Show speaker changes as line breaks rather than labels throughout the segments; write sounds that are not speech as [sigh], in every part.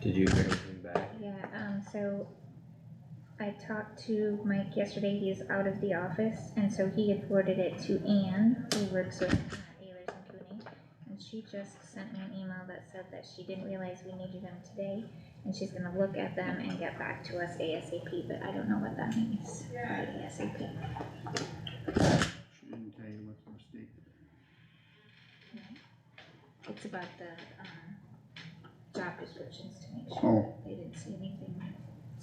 Did you hear anything back?
Yeah, um, so I talked to Mike yesterday, he is out of the office, and so he had forwarded it to Anne, who works with uh, Ayers and Cooney. And she just sent me an email that said that she didn't realize we needed them today, and she's gonna look at them and get back to us ASAP, but I don't know what that means by ASAP.
She didn't tell you what's a mistake.
It's about the, um, job descriptions to make sure
Oh,
they didn't see anything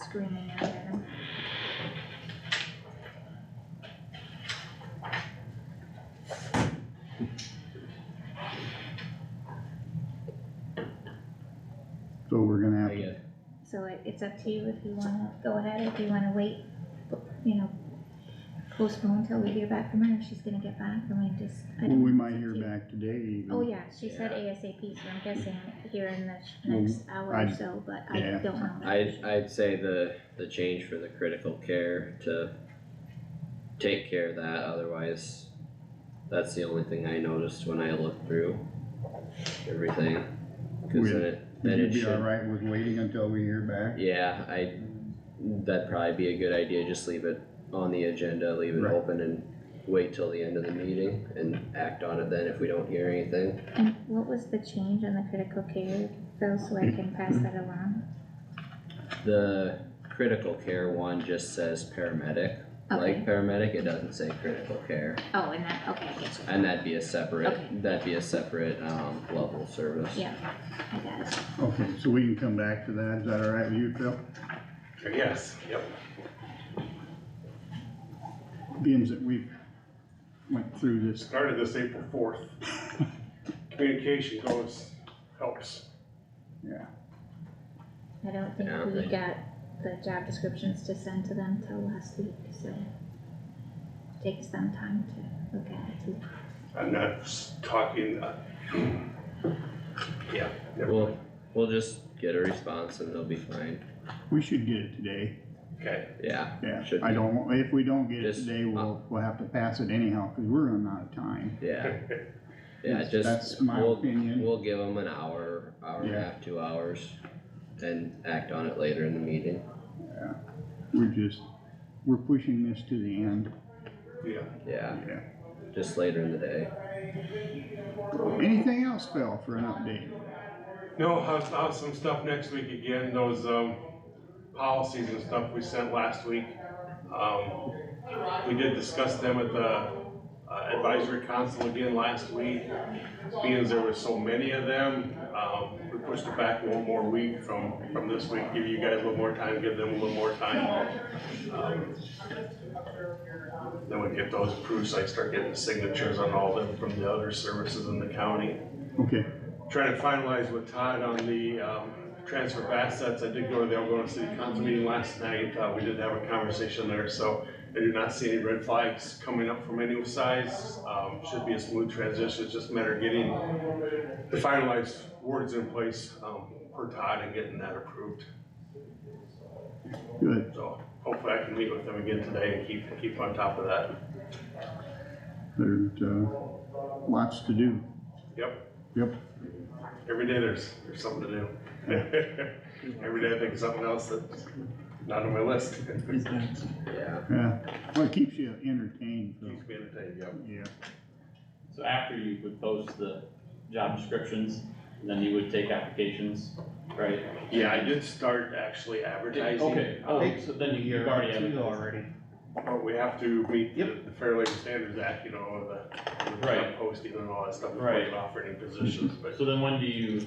screaming out at them.
so we're gonna have
Oh,
I
to,
guess,
So it, it's up to you if you wanna go ahead, if you wanna wait, you know, postpone till we hear back from her, if she's gonna get back, and we just. I
well,
don't
we
know,
might
it's up
hear
to you.
back today even.
Oh, yeah, she said
Yeah.
ASAP, so I'm guessing here in the sh-
Well,
next hour or
I'd-
so, but I
yeah.
don't know.
I'd, I'd say the, the change for the critical care to take care of that, otherwise, that's the only thing I noticed when I looked through everything. Cause then it,
Would
then
you
it
be
should,
alright with waiting until we hear back?
yeah, I, that'd probably be a good idea, just leave it on the agenda, leave it
Right.
open and wait till the end of the meeting and act on it then if we don't hear anything.
And what was the change on the critical care, Phil, so I can pass that along?
The critical care one just says paramedic, like
Okay,
paramedic, it doesn't say critical care.
oh, and that, okay, I get you,
And that'd be a
Okay.
separate, that'd be a separate, um, level of service.
yeah, I got it.
Okay, so we can come back to that, is that alright with you, Phil?
Yes, yep.
Being that we went through this,
Started this April fourth. Communication goes, helps.
yeah,
I don't think
Yeah,
we
they-
got the job descriptions to send to them till last week, so. Takes them time to look at it too.
I'm not s- talking, uh, yeah, never mind.
We'll, we'll just get a response and they'll be fine,
we should get it today,
okay,
yeah,
yeah,
Should
I
be.
don't, want- if we don't get it
Just,
today, we'll, we'll have to pass it anyhow, cause we're running out of time.
yeah.
[laughs]
Yeah,
That's-
just,
That's my
we'll,
opinion,
we'll give them an hour, hour and a
Yeah.
half, two hours, and act on it later in the meeting,
we're just, we're pushing this to the end,
yeah.
yeah,
yeah.
just later in the day.
Anything else, Phil, for an update?
No, I'll, I'll have some stuff next week again, those, um, policies and stuff we sent last week. Um, we did discuss them at the uh, advisory council again last week. Being there were so many of them, um, we pushed it back one more week from, from this week, give you guys a little more time, give them a little more time. Um, Then we get those approved, so I start getting signatures on all of them from the other services in the county
Okay,
trying to finalize with Todd on the, um, transfer of assets. I did go to the Algonah City Council meeting last night. Uh, we did have a conversation there, so I do not see any red flags coming up from any size. Um, should be a smooth transition. It's just a matter of getting the finalized words in place, um, for Todd and getting that approved.
good.
So hopefully I can meet with them again today and keep, keep on top of that.
There's, uh, lots to do.
Yep.
Yep.
Every day there's, there's something to do. [laughs] Every day I think of something else that's not on my list. [laughs]
Yeah,
Yeah, well, it keeps you entertained, so,
Keeps me entertained, yep.
yeah.
So after you would post the job descriptions, then you would take applications, right?
Yeah, I did start actually advertising.
Okay,
Um,
oh, so then you've already
Two
advertised.
Already.
But we have to meet the
Yep.
the Fair Labor Standards Act, you know, the, the job
Right.
posting and all that stuff, before we
Right.
can offer any positions, but
[laughs] So then when do you,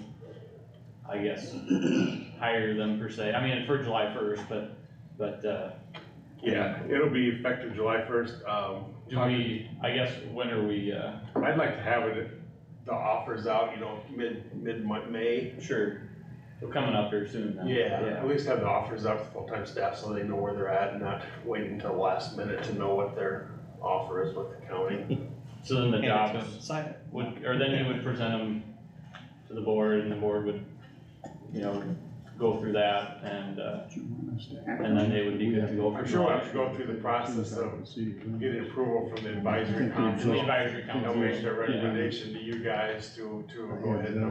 I guess, [clears throat] hire them per se? I mean, for July first, but, but, uh,
yeah, it'll be effective July first. Um,
do we, I guess, when are we, uh,
I'd like to have it, the offers out, you know, mid, mid-May.
sure, we're coming up here soon then.
Yeah, at least have the offers out to full-time staff so they know where they're at and not waiting until last minute to know what their offer is with the county.
So then the
Hand it to
jobs
them, Sign it.
would, or then you would present them to the board and the board would, you know, go through that and, uh,
What you want us to act
and then
on.
they would be good to go for.
I'm sure we'll
July.
have to go through the process of
See,
get approval from the advisory
[laughs]
Thank you.
to the
council.
advisory council.
They'll make their
Yeah.
recommendation to you guys to, to go ahead and